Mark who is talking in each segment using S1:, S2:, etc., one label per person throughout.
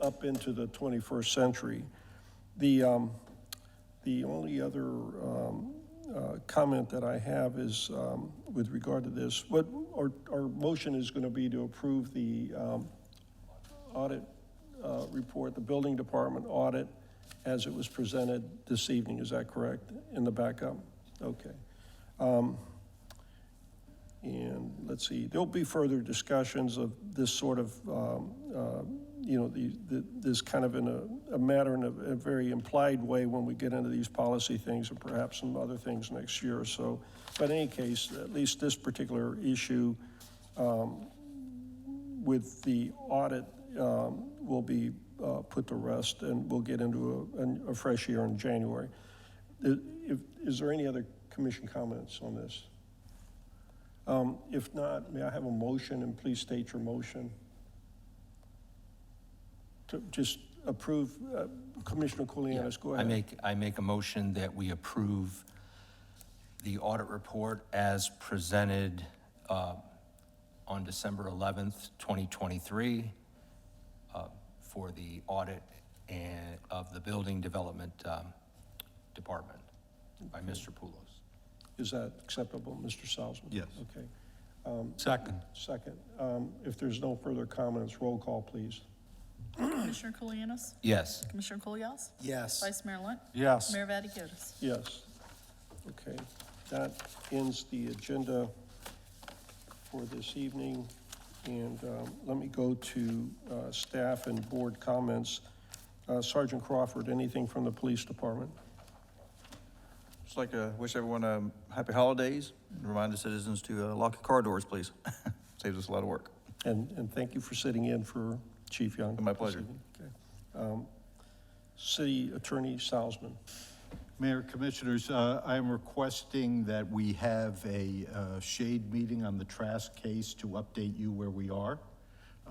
S1: up into the 21st century. The, um, the only other um, uh, comment that I have is um, with regard to this, what, our, our motion is going to be to approve the um, audit uh, report, the building department audit, as it was presented this evening, is that correct? In the backup? Okay. Um, And let's see, there'll be further discussions of this sort of, um, uh, you know, the, the- this kind of in a, a matter in a, a very implied way when we get into these policy things and perhaps some other things next year. So, but in any case, at least this particular issue um, with the audit um, will be uh, put to rest and we'll get into a, an- a fresh year in January. I- if- Is there any other commission comments on this? Um, If not, may I have a motion, and please state your motion? To just approve, uh, Commissioner Kulianis, go
S2: I
S1: ahead.
S2: make, I make a motion that we approve the audit report as presented uh, on December 11th, 2023, uh, for the audit and, of the Building Development um, Department by Mr. Poulos.
S1: Is that acceptable, Mr. Salzman?
S3: Yes.
S1: Okay, Um,
S3: Second.
S1: second. um, If there's no further comments, roll call, please.
S4: Commissioner Kulianis?
S2: Yes.
S4: Commissioner Kulyas?
S3: Yes.
S4: Vice Mayor Lunt?
S3: Yes.
S4: Mayor Vaticius?
S1: Yes. Okay, that ends the agenda for this evening. And um, let me go to uh, staff and board comments. Uh, Sergeant Crawford, anything from the police department?
S5: Just like to wish everyone um, happy holidays, and remind the citizens to uh, lock your car doors, please. Saves us a lot of work.
S1: And, and thank you for sitting in for Chief Young.
S5: My pleasure.
S1: Okay. Um, City Attorney Salzman.
S3: Mayor, Commissioners, uh, I am requesting that we have a uh, shade meeting on the Trask case to update you where we are.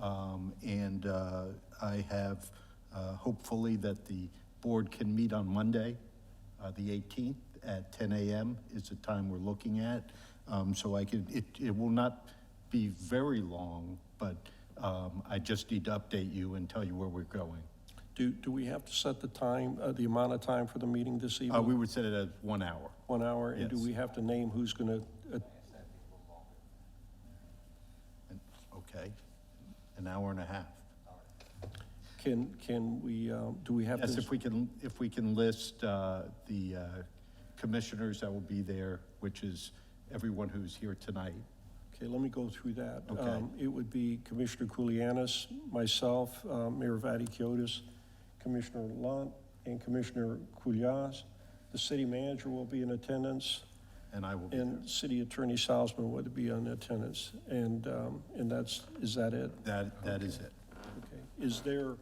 S3: Um, And uh, I have, uh, hopefully, that the board can meet on Monday, uh, the 18th, at 10 a.m. is the time we're looking at. Um, So I can, it it will not be very long, but um, I just need to update you and tell you where we're going.
S1: Do, do we have to set the time, uh, the amount of time for the meeting this
S3: Uh, We
S1: evening?
S3: would set it at one hour.
S1: One hour? And do
S3: Yes.
S1: we have to name who's uh, going to
S3: And- Okay, an hour and a half.
S1: Can, can we, um, do we have
S3: Yes,
S1: to,
S3: if we can, if we can list uh, the uh, commissioners that will be there, which is everyone who's here tonight.
S1: okay, let me go through that.
S3: Okay.
S1: Um, It would be Commissioner Kulianis, myself, uh, Mayor Vaticiotis, Commissioner Lunt, and Commissioner Kulyas. The city manager will be in attendance,
S3: And I will be there.
S1: and City Attorney Salzman would be in attendance. And, um, and that's, is that it?
S3: That, that is it.
S1: Okay. Is there,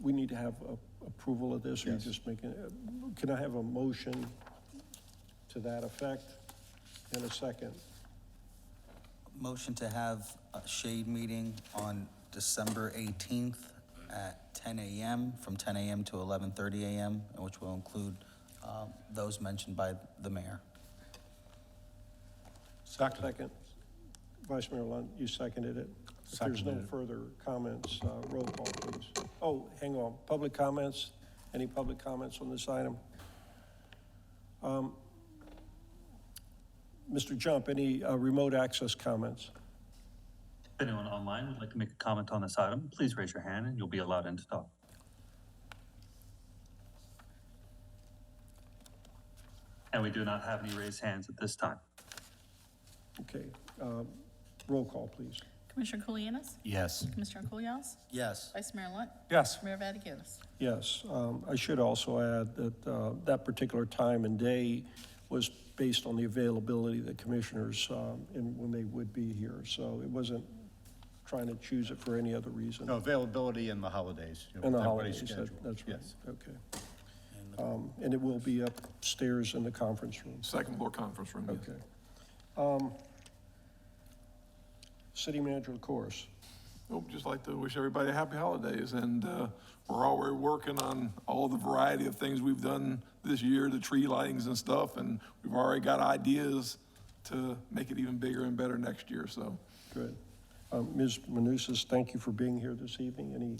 S1: we need to have a- approval of this, or you
S3: Yes.
S1: just making, can I have a motion to that effect in a second?
S6: Motion to have a shade meeting on December 18th at 10 a.m., from 10 a.m. to 11:30 a.m., and which will include uh, those mentioned by the mayor.
S1: Second. Vice Mayor Lund, you seconded it. If there's no
S3: Seconded it.
S1: further comments, uh, roll call, please. Oh, hang on, public comments? Any public comments on this item? Um, Mr. Jump, any uh, remote access comments?
S7: If anyone online would like to make a comment on this item, please raise your hand and you'll be allowed in to talk. And we do not have any raised hands at this time.
S1: Okay, um, roll call, please.
S4: Commissioner Kulianis?
S2: Yes.
S4: Commissioner Kulyas?
S6: Yes.
S4: Vice Mayor Lunt?
S5: Yes.
S4: Mayor Vaticius?
S1: Yes, um, I should also add that uh, that particular time and day was based on the availability of the commissioners um, and when they would be here. So it wasn't trying to choose it for any other reason.
S3: No, availability in the holidays. you know,
S1: And the
S3: with Oh, everybody's
S1: holidays, that-
S3: schedule.
S1: that's right,
S3: Yes.
S1: okay. Um, And it will be upstairs in the conference room,
S8: Second floor conference room, yes.
S1: okay. Um, City manager, of course.
S8: Well, just like to wish everybody happy holidays, and uh, we're already working on all the variety of things we've done this year, the tree lightings and stuff, and we've already got ideas to make it even bigger and better next year, so.
S1: Good. Um, Ms. Manousis, thank you for being here this evening. Any